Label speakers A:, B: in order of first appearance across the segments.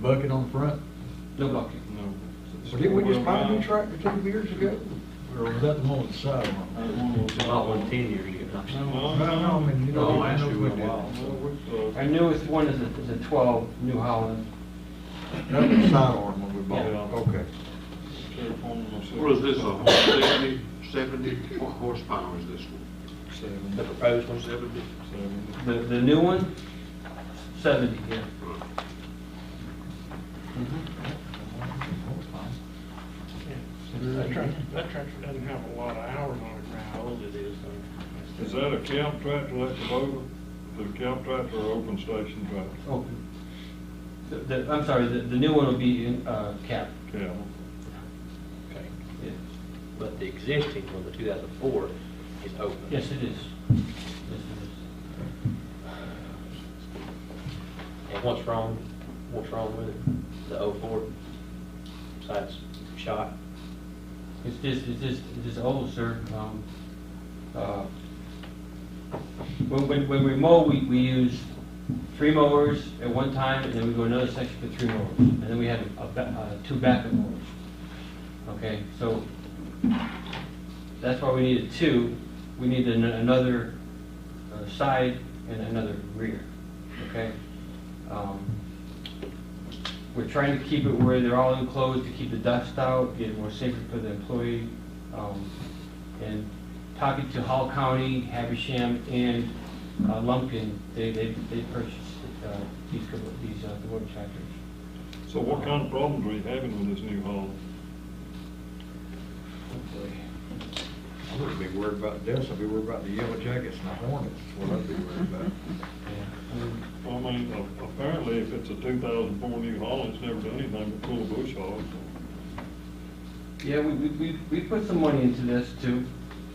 A: bucket on front?
B: No bucket.
C: No.
B: But didn't we just buy a new tractor two years ago?
A: Or was that the one with the sidearm?
D: Not one ten years ago.
A: No, no, Oh, I mean, you know.
E: Oh,
D: No, last year went wild.
B: Our newest one is a, is a twelve New Holland.
A: That was the sidearm when we bought it.
B: Yeah.
A: Okay.
C: What is this, a 70, 70 horsepower is this one?
B: The proposed one.
C: 70?
B: The, the new one, seventy, yeah. Mm-hmm.
F: That tractor, that tractor doesn't have a lot of hours on it, right, how old it is, though.
E: Is that a camp tractor like the Bowman? The camp tractor or open station tractor?
A: Oh.
B: Open. Oh. The, the, I'm sorry, the, the new one will be in, uh, cap,
E: Camp.
D: Okay.
B: yeah.
D: But the existing one, the two thousand four, is open.
B: Yes, it is. Yes, it is.
D: And what's wrong, what's wrong with it? The oh four, besides shot?
B: It's just, it's just, it's just old, sir. Um, uh, When, when, when we mow, we, we use three mowers at one time, and then we go another section for three mowers. And then we have a, ba- uh, two backup mowers. Okay, so that's why we needed two. We need an- another uh, side and another rear, okay? Um, we're trying to keep it where they're all enclosed to keep the dust out, get it more safer for the employee. um, And talking to Hall County, Havisham, and uh, Lumpkin, they, they, they purchased uh, these, Kubota- these uh, Kubota tractors.
E: So what kind of problems are you having with this new haul?
A: I wouldn't be worried about this, I'd be worried about the yellow jackets and the hornets, is what I'd be worried about.
B: Yeah.
E: I mean, a- apparently if it's a two thousand four New Holland, it's never done anything but pull a bush hog.
B: Yeah, we, we, we we put some money into this too,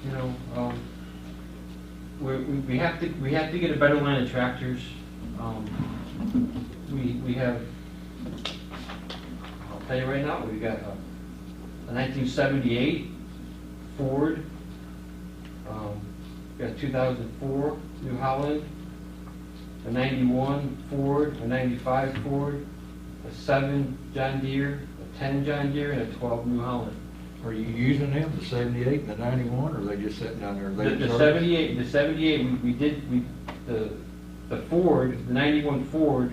B: you know, um, we're, we, we have to, we have to get a better line of tractors. Um, We, we have, I'll tell you right now, we've got a a nineteen seventy-eight Ford, um, we got two thousand four New Holland, a ninety-one Ford, a ninety-five Ford, a seven John Deere, a ten John Deere, and a twelve New Holland.
A: Are you using them, the seventy-eight and the ninety-one, or are they just sitting down there?
B: The
A: late
B: the
A: service?
B: seventy-eight, the seventy-eight, we, we did, we, the, the Ford, the ninety-one Ford,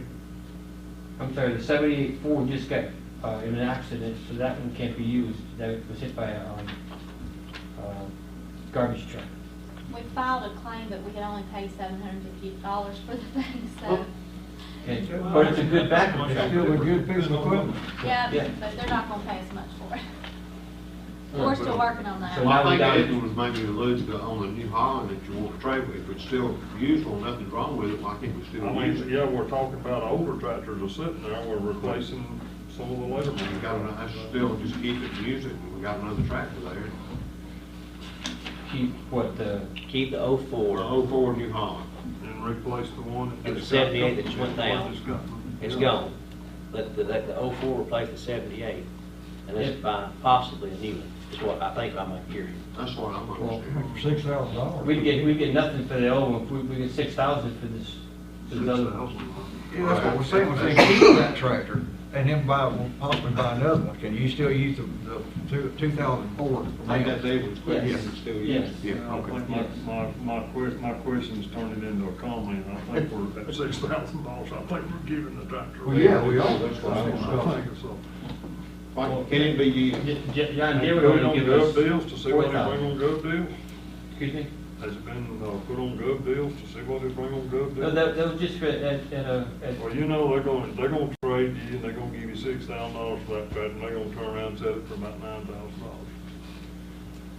B: I'm sorry, the seventy-eight Ford just got, uh, in an accident, so that one can't be used, that was hit by a, um, uh, garbage truck.
G: We filed a claim, but we could only pay seven hundred and fifty dollars for the thing, so,
B: Okay, but it's a good backup
A: It's
B: truck.
A: Still a good piece of equipment.
G: yeah,
B: Yeah.
G: but they're not gonna pay us much for it. We're still working on
B: So
C: Well,
G: that.
B: now-
C: I think Edwin was maybe alluding to on the New Holland, if you want to trade with, if it's still useful, nothing's wrong with it, why can't we
E: I
C: still use
E: mean,
C: it?
E: yeah, we're talking about older tractors are sitting there, we're replacing some of the later ones.
C: We got, an- I still just keep it and use it, and we got another tractor there.
B: Keep what, uh, the,
D: Keep the oh
C: Or
D: four,
C: oh four New Holland.
E: And replace the one.
D: And the
E: that's got
D: 78 that
E: company,
D: just went down.
E: that's got-
D: it's gone. Let the, let the oh four replace the seventy-eight, and let's
B: Yeah.
D: buy possibly a new one, is what I think I'm hearing.
C: That's what I'm
A: Well,
C: understanding.
A: six thousand dollars.
B: we'd get, we'd get nothing for the old one, we, we get six thousand for this, for the other one.
A: Yeah, that's what we're saying, we're saying keep that tractor and then buy, one, possibly buy another one. Can you still use the, the two, two thousand four?
C: I think that's Edwin's question,
B: Yes.
C: if it's still
B: Yes.
C: used. Yeah,
E: I
C: okay.
F: Uh,
E: think my, my, my que- my question's turning into a comment, I think we're at six thousand dollars, I think we're giving the tractor.
A: Well,
E: away.
A: yeah, we are.
C: That's what
E: I
C: I'm
E: think so. I
C: saying.
E: think so.
C: Why- Can it be used?
B: J- J- John
E: Have you
B: Deere
E: put
B: would
E: it on
B: only give us
E: gov deals to see what they bring
B: 4,000.
E: on gov deals?
B: Excuse me?
E: Has it been, uh, put on gov deals to see what they bring on gov
B: No,
E: deals?
B: that, that was just for, at, at a, at
E: Well, you know, they're gonna, they're gonna trade you, and they're gonna give you six thousand dollars for that tractor, and they're gonna turn around and sell it for about nine thousand dollars.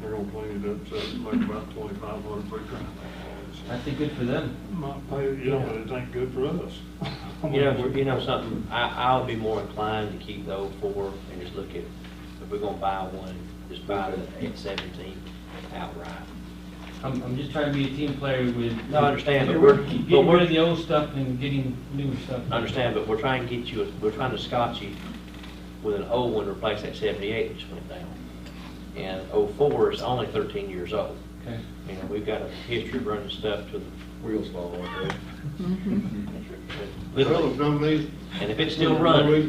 E: They're gonna clean it up, sell it for like about twenty-five hundred per tractor.
B: I think good for them.
E: Might pay, you know, but it ain't good for us.
D: You know, you know something, I, I would be more inclined to keep the old four and just look at, if we're gonna buy one, just buy the eight seventeen outright.
B: I'm, I'm just trying to be a team player with.
D: No, I understand, but
B: Get-
D: we're- but
B: Getting
D: we're-
B: rid of the old stuff and getting new stuff.
D: I understand, but we're trying to get you, we're trying to scotch you with an old one, to replace that seventy-eight that just went down. And oh four is only thirteen years old.
B: Okay.
D: You know, we've got a history of running stuff to the,
A: Wheels fall off, right?
C: Fellas,
D: literally.
C: don't these
D: And if it's still running,